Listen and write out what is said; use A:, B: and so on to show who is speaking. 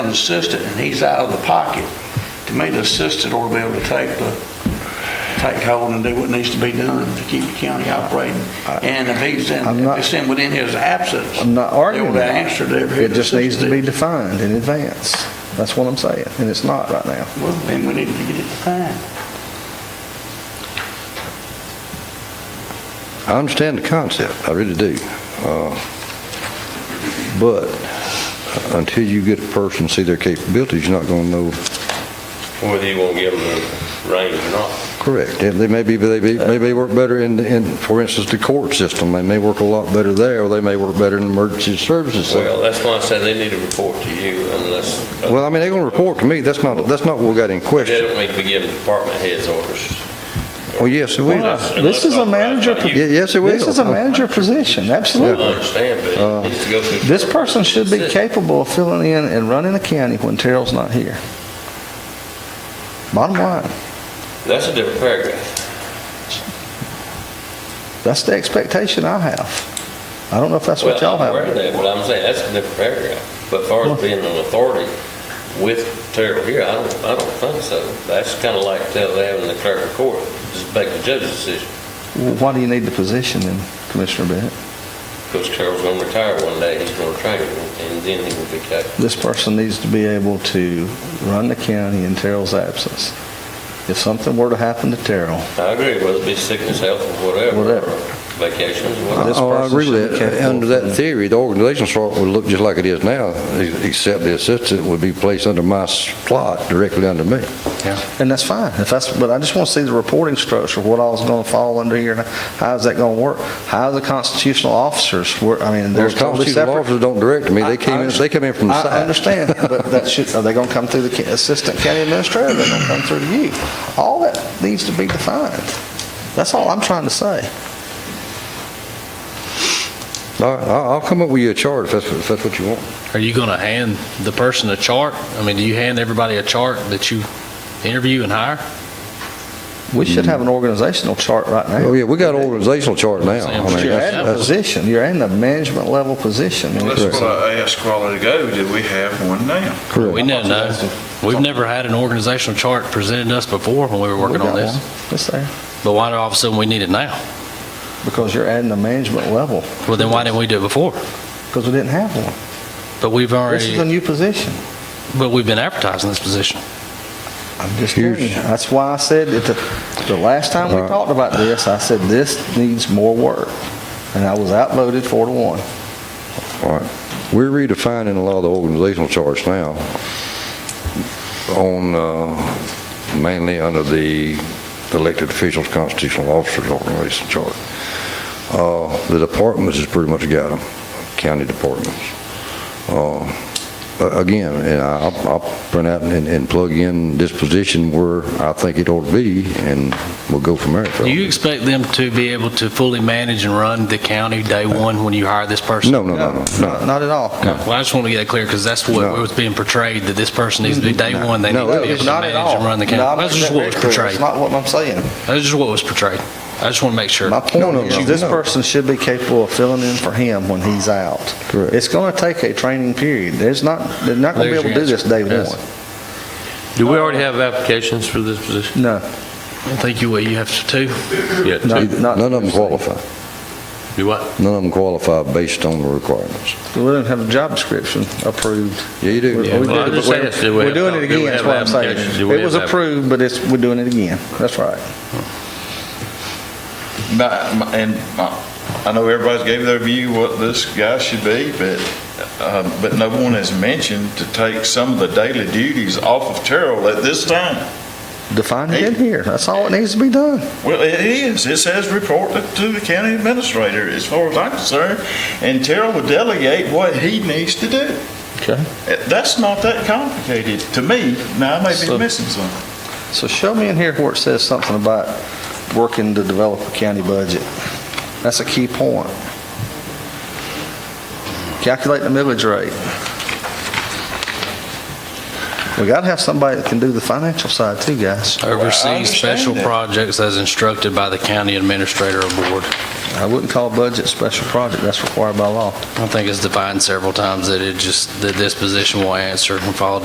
A: an assistant, and he's out of the pocket. To me, the assistant ought to be able to take the, take hold and do what needs to be done to keep the county operating. And if he's in,
B: I'm
A: if
B: not-
A: it's in within his absence.
B: I'm not arguing
A: They ought to
B: that.
A: answer to every.
B: It just needs to be
A: assistant.
B: defined in advance. That's what I'm saying, and it's not right now.
A: Well, then we need to get it defined.
C: I understand the concept, I really do. Uh, But until you get a person, see their capabilities, you're not going to know,
D: whether you want to give them the reins or not.
C: correct. And They may be, they may may they work better in, in, for instance, the court system, they may work a lot better there, or they may work better in emergency services. center.
D: Well, uh, that's why I said they need to report to you unless,
C: Well, I mean, they're going to report to me, that's not, that's not what we got in
D: they
C: question.
D: don't need to be giving department heads orders.
C: Well, yes, it will.
D: Unless-
B: This is a manager,
D: unless
C: Ye-
D: authorized
C: Yes, it will.
B: this is a manager position,
D: by you. I
B: absolutely.
D: understand, but it needs to go through.
B: Uh, This person should be
D: That's it.
B: capable of filling in and running the county when Terrell's not here. Bottom line,
D: That's a different paragraph.
B: that's the expectation I have. I don't know if that's what
D: Well,
B: y'all
D: I'm aware of
B: have.
D: that, but I'm saying that's a different paragraph. But as far as being an authority with Terrell here, I don't, I don't think so. That's kind of like tell them having the clerk of court, just make the judge's decision,
B: Well, Why do you need the position then, Commissioner Bennett?
D: because Terrell's going to retire one day, he's going to train him, and then he will be capable.
B: This person needs to be able to run the county in Terrell's absence. If something were to happen to Terrell,
D: I agree, whether it be sickness, health, or whatever.
B: Whatever.
D: Vacations,
B: This
C: Oh,
D: whatever.
C: I
B: person
C: agree
B: should
C: with
B: be
C: that.
B: capable
C: Under
B: of
C: that
B: doing it.
C: theory, the organization chart would look just like it is now, ex- except the assistant would be placed under my slot, directly under me.
B: and that's fine. If that's, but I just want to see the reporting structure, what all's going to fall under here, and how is that going to work? How are the constitutional officers, work? I mean,
C: Well,
B: they're
C: the
B: totally
C: constitutional
B: separate.
C: officers don't direct me,
B: I- I
C: they came in, they
B: understand-
C: come in from the
B: I-
C: side.
B: I understand, but that should, are they going to come through the ca- assistant county administrator, or they going to come through you? All that needs to be defined. That's all I'm trying to say.
C: All right, I'll, I'll come up with you a chart if that's, if that's what you want.
E: Are you going to hand the person a chart? I mean, do you hand everybody a chart that you interview and hire?
B: We should have an organizational chart right now.
C: Oh, yeah, we got an organizational chart now. I mean,
E: But
B: But you're
C: that's-
B: in a
C: that's-
B: position, you're in a management level position.
F: Well, that's what I asked a while ago, did we have one now?
E: We never know. We've never had an organizational chart presented to us before when we were working on this.
B: It's there,
E: But why do all of a sudden we need it now?
B: because you're adding a management level,
E: Well, then why didn't we do it before?
B: because we didn't have one.
E: But we've
B: This is a
E: already,
B: new position.
E: but we've been advertising this position.
B: I'm just telling you, that's why I said, that the, the last time we
C: Right.
B: talked about this, I said, this needs more work. And I was outvoted four to one.
C: All right. We're redefining a lot of the organizational charts now on, uh, mainly under the elected officials, constitutional officers organization chart. Uh, The departments has pretty much got them, county departments. Uh, a- Again, and I- I'll, I'll print out and, and plug in this position where I think it ought to be, and we'll go from there.
E: Do you expect them to be able to fully manage and run the county day one when you hire this person?
C: No, no, no, no, no.
B: Not at all.
E: Well, I just want to get that clear because that's what
C: No.
E: was being portrayed, that this person needs to be day one. They need
C: No,
E: to be
C: it
E: able
C: was
E: to
B: Not at
E: manage
B: all.
E: and run the
B: No, I'm
E: county. That's just what was
B: making that clear. That's
E: portrayed.
B: not what I'm saying.
E: That's just what was portrayed. I just want to make sure.
B: My
C: No,
B: point
C: no, no,
B: is, this
C: no.
B: person should be capable of filling in for him when he's out.
C: Correct.
B: It's gonna take a training period. There's not, they're not gonna be
E: There's
B: able to do
E: your
B: this day
E: answer. Yes.
B: one.
D: Do we already have applications for this position?
B: No,
E: I think you will. You have to too.
D: Yes.
B: no, not.
C: None of them qualify.
D: Do what?
C: None of them qualify based on the requirements.
B: We didn't have a job description approved.
C: Yeah, you do.
B: We- we
D: well, I
B: did,
D: just
B: but we're-
D: asked, do we
B: We're doing
D: have-
B: it
D: do we
B: again, is
D: have
B: what I'm saying.
D: applications? Do we
B: It was
D: have app-
B: approved, but it's, we're doing it again. That's right.
F: My- my- And my- I know everybody's gave their view what this guy should be, but, um, but no one has mentioned to take some of the daily duties off of Terrell at this time.
B: Define it in here. That's all that needs to be done.
F: Well, it is. It says report to- to the county administrator, as far as I'm concerned, and Terrell will delegate what he needs to do.
B: Okay.
F: Uh, That's not that complicated to me. Now, I may be
B: So-
F: missing something.
B: So show me in here where it says something about working to develop a county budget. That's a key point. Calculate the millage rate. We gotta have somebody that can do the financial side too, guys.
E: Oversee
F: understand
E: special
F: that.
E: projects as instructed by the county administrator or board.
B: I wouldn't call budget special project, that's required by law.
E: I think it's defined several times that it just, that this position will answer and follow